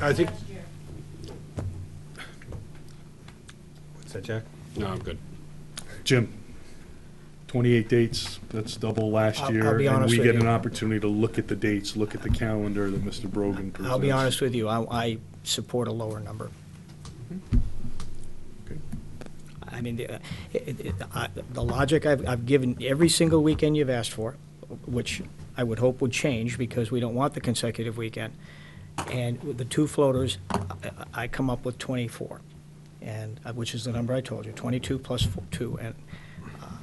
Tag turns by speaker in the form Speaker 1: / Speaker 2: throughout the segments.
Speaker 1: I think. What's that, Jack?
Speaker 2: No, I'm good.
Speaker 3: Jim, 28 dates, that's double last
Speaker 4: I'll-
Speaker 3: year.
Speaker 4: I'll be honest
Speaker 3: And
Speaker 4: with
Speaker 3: we get
Speaker 4: you.
Speaker 3: an opportunity to look at the dates, look at the calendar that Mr. Brogan presents.
Speaker 4: I'll be honest with you, I, I support a lower number.
Speaker 3: Mm-hmm. Okay.
Speaker 4: I mean, the, uh, it- it- I- the logic I've, I've given every single weekend you've asked for, which I would hope would change because we don't want the consecutive weekend. And with the two floaters, I- I come up with 24, and, uh, which is the number I told you, 22 plus four- 2. And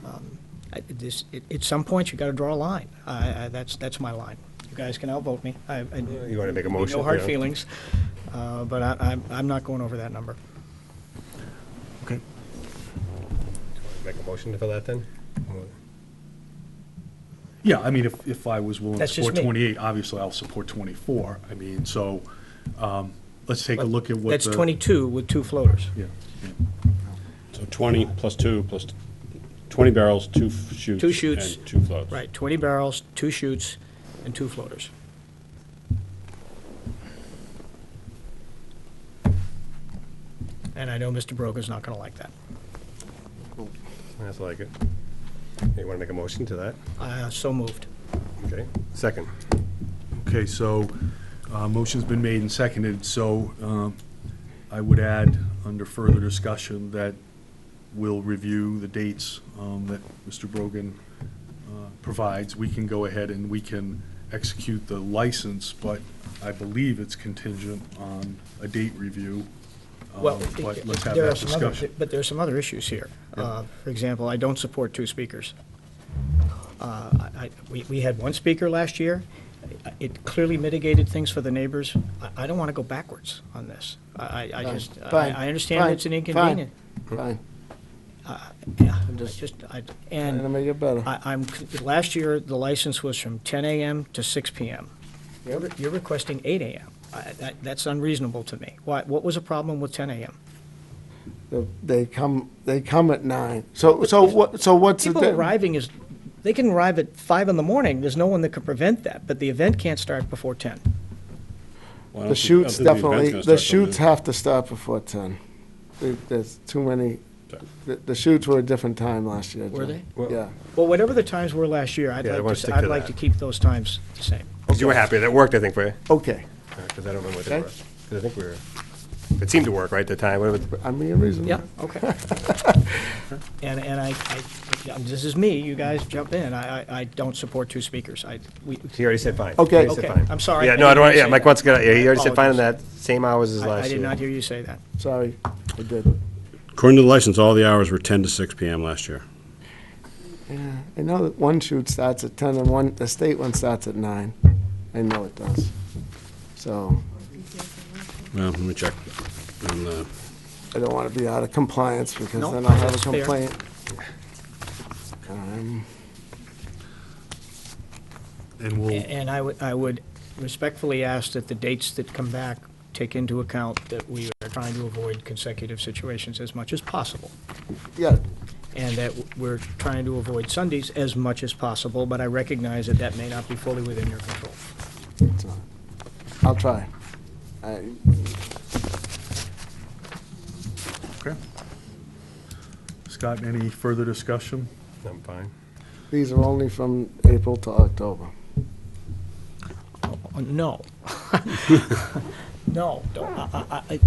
Speaker 4: um, I- this, it- at some point, you got to draw a line. I- I- That's, that's my line. You guys can outvote me. You
Speaker 1: You wanna make a motion,
Speaker 4: No hard
Speaker 1: yeah.
Speaker 4: feelings, uh, but I- I'm, I'm not going over that number.
Speaker 3: Okay.
Speaker 1: Make a motion for that, then?
Speaker 3: Yeah, I mean, if, if I was willing to
Speaker 4: That's just
Speaker 3: support
Speaker 4: me.
Speaker 3: 28, obviously I'll support 24. I mean, so, um, let's take a
Speaker 4: But
Speaker 3: look at what the.
Speaker 4: That's 22 with two floaters.
Speaker 3: Yeah.
Speaker 2: So 20 plus two plus, 20 barrels, two f- shoots.
Speaker 4: Two shoots.
Speaker 2: And two floats.
Speaker 4: Right, 20 barrels, two chutes, and two floaters. And I know Mr. Broker's not going to like that.
Speaker 1: That's like it. You wanna make a motion to that?
Speaker 4: Uh, So moved.
Speaker 1: Okay, second.
Speaker 3: Okay, so, uh, motion's been made and seconded, so, um, I would add, under further discussion, that we'll review the dates, um, that Mr. Brogan, uh, provides. We can go ahead and we can execute the license, but I believe it's contingent on a date review. Um,
Speaker 4: Well,
Speaker 3: But let's have
Speaker 4: there are
Speaker 3: that
Speaker 4: some other-
Speaker 3: discussion.
Speaker 4: But there are some other issues here. Uh, For example, I don't support two speakers. Uh, I- I- We we had one speaker last year. It clearly mitigated things for the neighbors. I- I don't want to go backwards on this. I- I I just, I
Speaker 5: Fine.
Speaker 4: I understand
Speaker 5: Fine.
Speaker 4: it's an
Speaker 5: Fine.
Speaker 4: inconvenience.
Speaker 5: Fine,
Speaker 4: Yeah, I
Speaker 5: just-
Speaker 4: just, I-
Speaker 5: and to
Speaker 4: and
Speaker 5: make it better.
Speaker 4: I- I'm, last year, the license was from 10 AM to 6 PM. You're re- You're requesting 8 AM. I- that- That's unreasonable to me. Why? What was the problem with 10 AM?
Speaker 5: They- They come, they come at nine. So, so what, so what's the?
Speaker 4: People
Speaker 5: di-
Speaker 4: arriving is, they can arrive at five in the morning, there's no one that can prevent that, but the event can't start before ten.
Speaker 2: Well, I
Speaker 5: The
Speaker 2: don't think- I don't
Speaker 5: shoots
Speaker 2: think the event's
Speaker 5: definitely,
Speaker 2: gonna
Speaker 5: the
Speaker 2: start till
Speaker 5: shoots have to start before ten. There- There's too many,
Speaker 2: Sorry.
Speaker 5: the, the shoots were a different time last year.
Speaker 4: Were
Speaker 5: Jim.
Speaker 1: they?
Speaker 5: Yeah.
Speaker 4: Well, whatever the times were last year, I'd
Speaker 1: Yeah, I
Speaker 4: like
Speaker 1: wanna
Speaker 4: to,
Speaker 1: stick
Speaker 4: s- I'd
Speaker 1: to
Speaker 4: like
Speaker 1: that.
Speaker 4: to keep those times the same.
Speaker 1: Because you were happy, that worked, I think, for you,
Speaker 5: Okay,
Speaker 1: because I don't remember what they were.
Speaker 5: Okay.
Speaker 1: 'Cause I think we were, it seemed to work, right, at the time, whatever. the-
Speaker 5: I'm being reasonable.
Speaker 4: Yeah, okay. And, and I, I, this is me, you guys jump in, I, I, I don't support two speakers, I, we,
Speaker 1: He already said fine.
Speaker 5: Okay.
Speaker 1: He already said
Speaker 4: Okay,
Speaker 1: fine.
Speaker 4: I'm sorry.
Speaker 1: Yeah,
Speaker 4: I
Speaker 1: no, I
Speaker 4: didn't
Speaker 1: don't, want-
Speaker 4: say
Speaker 1: yeah, Mike
Speaker 4: that.
Speaker 1: wants to get, yeah, he already said fine on that,
Speaker 4: Apologies.
Speaker 1: same hours as
Speaker 4: I
Speaker 1: last
Speaker 4: I
Speaker 1: year.
Speaker 4: did not hear you say that.
Speaker 5: Sorry, I did.
Speaker 2: According to the license, all the hours were 10 to 6 PM last year.
Speaker 5: I know that one shoot starts at ten and one, the state one starts at nine. I know it does. So
Speaker 2: Well, let me check. uh, on the-
Speaker 5: I don't want to be out of compliance because
Speaker 4: No,
Speaker 5: then I'll have a
Speaker 4: that's fair.
Speaker 5: complaint. Um,
Speaker 3: And
Speaker 4: A-
Speaker 3: we'll,
Speaker 4: And I would, I would respectfully ask that the dates that come back take into account that we are trying to avoid consecutive situations as much as possible.
Speaker 5: Yeah,
Speaker 4: and that we're trying to avoid Sundays as much as possible, but I recognize that that may not be fully within your control.
Speaker 5: it's not. I'll try. I,
Speaker 3: okay. Scott, any further discussion?
Speaker 1: I'm fine.
Speaker 5: these are only from April to October.
Speaker 4: Oh, No. No, don't, I, I, I, i-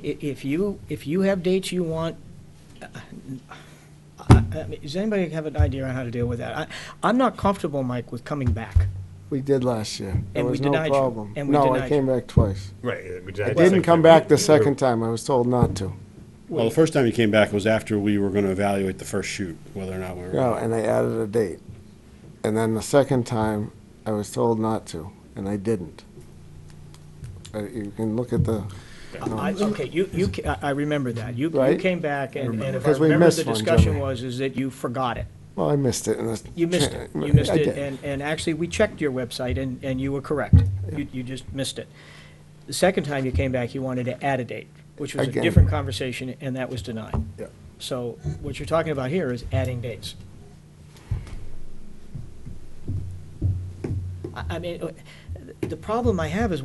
Speaker 4: if you, if you have dates you want, uh, I, I mean, does anybody have an idea on how to deal with that? I, I'm not comfortable, Mike, with coming back.
Speaker 5: We did last year. There
Speaker 4: And we
Speaker 5: was no
Speaker 4: denied you.
Speaker 5: problem.
Speaker 4: And we
Speaker 5: No,
Speaker 4: denied
Speaker 5: I came back twice.
Speaker 1: Right.
Speaker 5: I didn't come back the second time. I was told not to.
Speaker 2: Well, the first time you came back was after we were going to evaluate the first shoot, whether or not we
Speaker 5: No,
Speaker 2: were.
Speaker 5: and I added a date. And then the second time, I was told not to, and I didn't. Uh, You can look at the,
Speaker 4: I, okay, you, you, ca- I I remember that. You, you
Speaker 5: Right?
Speaker 4: came back, and and if I
Speaker 5: Because we
Speaker 4: remember, the
Speaker 5: missed one,
Speaker 4: discussion
Speaker 5: Jimmy.
Speaker 4: was, is that you forgot it.
Speaker 5: well, I missed it. and it's-
Speaker 4: You missed it.
Speaker 5: I
Speaker 4: You missed it,
Speaker 5: did.
Speaker 4: and, and actually, we checked your website, and, and you were correct. You, you just missed it. The second time you came back, you wanted to add a date, which was a
Speaker 5: Again.
Speaker 4: different conversation, and that was denied.
Speaker 5: Yeah.
Speaker 4: So what you're talking about here is adding dates. I, I mean, uh, the problem I have is